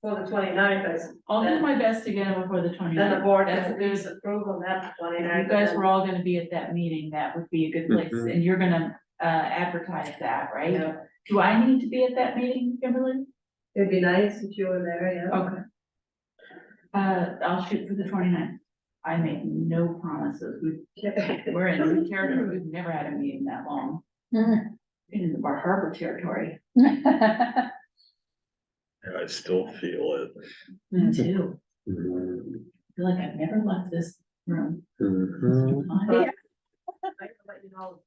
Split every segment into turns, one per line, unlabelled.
for the 29th. is,
I'll do my best to get them before the twenty
then the
ninth.
board
That's
has
a
to
good-
disapprove on that twenty
You
ninth.
guys were all gonna be at that meeting, that would be a good place,
Mhm.
and you're gonna uh advertise that, right? Do I need to be at that meeting, Kimberly?
It'd be nice if you were there, yeah.
Okay. Uh, I'll shoot for the 29th. I make no promises, we, we're in new territory, we've never had a meeting that long.
Mm-hmm.
Mm.
In the Bar Harbor territory.
I still feel
Mm-hmm.
Me too.
it.
I feel like I've never left this room.
Mhm.
Uh,
I can let you know.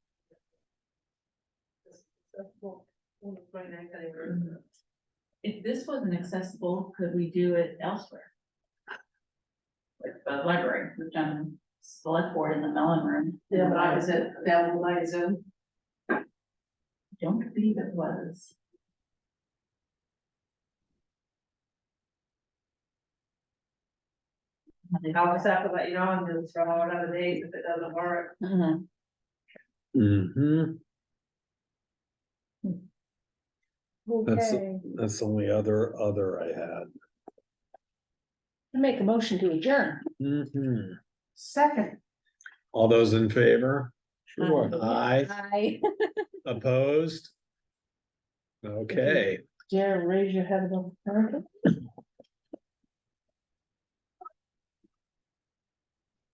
It's successful on the 29th anniversary.
If this wasn't accessible, could we do it elsewhere? Like the library, we've done select board in the Mellon Room.
Yeah, but I was at Bellevue Light Zoom.
Don't believe it was.
I'll just have to let you know and then throw out other days if it doesn't work.
Uh-huh.
Mhm.
Mhm. That's-
Okay.
That's the only other, other I had.
Make a motion to adjourn.
Mhm.
Second.
All those in favor?
Sure.
Aye,
Aye.
opposed? Okay,
Jared, raise your head above the parapet.